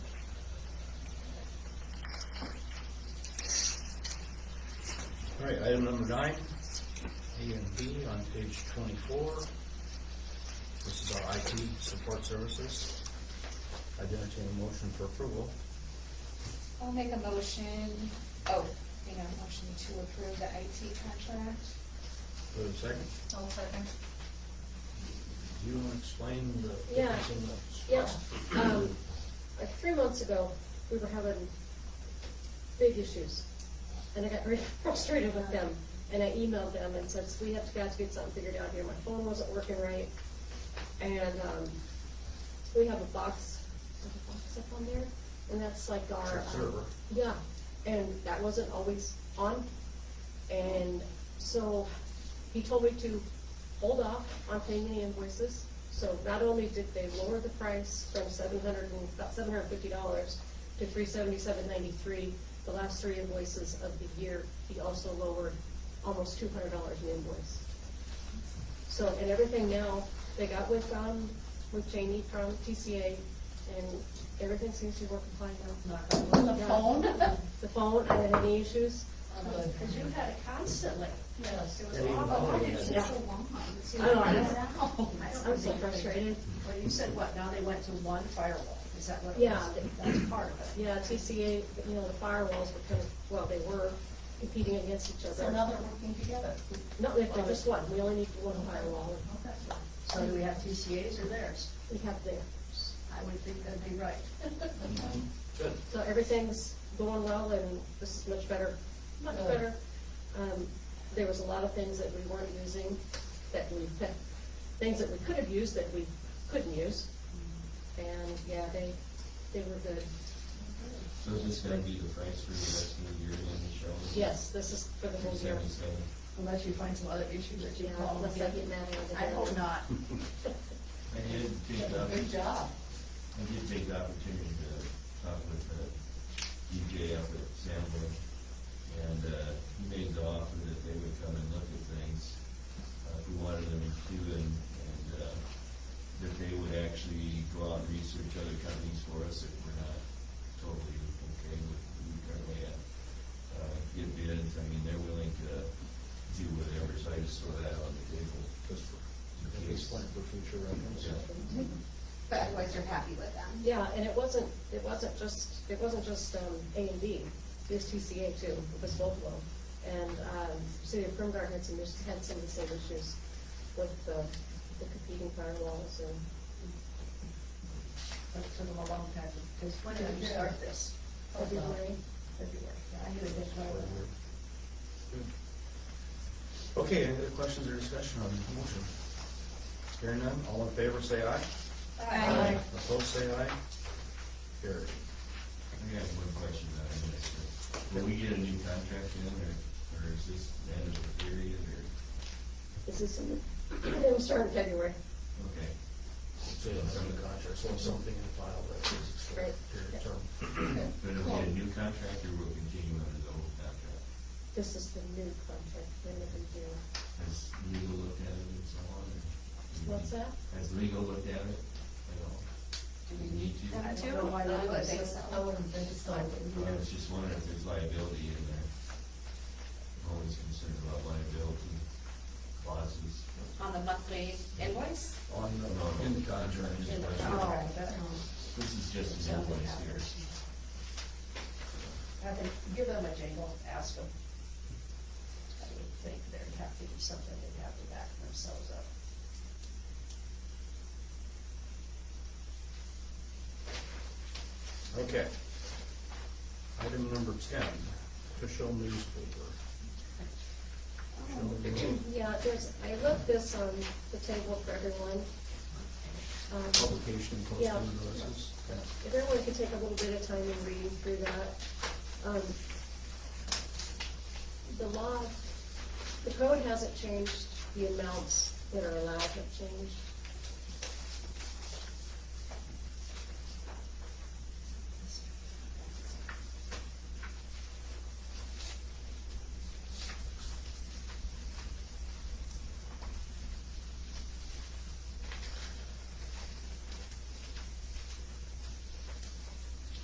right, item number nine, A and B on page twenty-four. This is our IT support services. I would entertain a motion for approval. I'll make a motion, oh, you know, motion to approve the IT contract. Do I have a second? I'll second. Do you want to explain the Yeah. difference in the? Yeah, um, like three months ago, we were having big issues, and I got very frustrated with them, and I emailed them and said, we have to, guys, get something figured out here, my phone wasn't working right, and, um, we have a box, there's a box up on there, and that's like our. It's a um, server. Yeah, and that wasn't always on, and so he told me to hold off on paying the invoices. So not only did they lower the price from seven hundred and, about seven hundred and fifty dollars to three seventy-seven ninety-three, the last three invoices of the year, he also lowered almost two hundred dollars an invoice. So, and everything now, they got with, um, with Janie from TCA, and everything seems to be working fine Knock now. on wood. The Yeah. phone? The phone, are there any issues? Because you had it constantly. Yes. It was Yeah, even awful. Why though did it it- take so long? It's I don't know. even now. I don't I'm so know. frustrated. Well, you said what, now they went to one firewall, is that what it was? Yeah. That's part of it. Yeah, TCA, you know, the firewalls were kind of, well, they were competing against each So other. now they're working together. No, they've got just one, we only need one firewall, Okay. So do we have TCAs or theirs? we have the, I would think that'd be right. Good. so everything's going well and this is much better, much Good. better. Um, there was a lot of things that we weren't using, that we, that- things that we could have used that we couldn't use. And, yeah, they, they were good. So is this gonna be the price for the rest of the year in the show? Yes, this is for the whole year. Seventy-seven. Unless you find some other issue that you Yeah, call them unless I again. get mad at it I hope again. not. I did take the, Good I job. did take the opportunity to talk with the DJ up at Sanborn, and, uh, he made the offer that they would come and look at things, uh, if we wanted them to, and, and, uh, that they would actually go out and research other companies for us if we're not totally okay with who we currently have. Uh, get bids, I mean, they're willing to do whatever, so I just throw that on the table. Just in for- case. Explain for future reference. But otherwise, you're happy with them? Yeah, and it wasn't, it wasn't just, it wasn't just um, A and B, it was TCA too, it was both of them. And um, City of Primgar had some, is- had some of the same issues with the the competing firewalls and, That took them a long time, because when did you start this? February. February. Yeah, I knew it didn't Good. go. Okay, any other questions or discussion on the motion? Hearing none, all in favor, say aye. Aye. Opposed, say aye. Carried. I have one question about this. Will we get a new contract in, or, or is this the end of the period, or, this is, it was starting February, okay, So you'll have the contract, so something in the file that is extended period of term. but it'll be a new contract, or we'll continue under the old contract? this is the new contract, then it will do. Has legal looked at it and so on, or? What's that? Has legal looked at it at all? Do we need to? I don't know why I they would. would think so. I wouldn't think so. I was just wondering if there's liability in there. I'm always concerned about liability clauses. On the monthly invoice? On the, in the contract. In the Oh, that, This is just an invoice here. I think, give them a jingle, ask them. I would think they'd have to do something, they'd have to back themselves up. Okay. Item number ten, official newspaper. Official newspaper, Yeah, there's, I left this on the table for everyone. Um, Publication and Yeah. posting notices. If everyone could take a little bit of time in reading through that. Um, The law, the code hasn't changed, the amounts that are allowed have changed.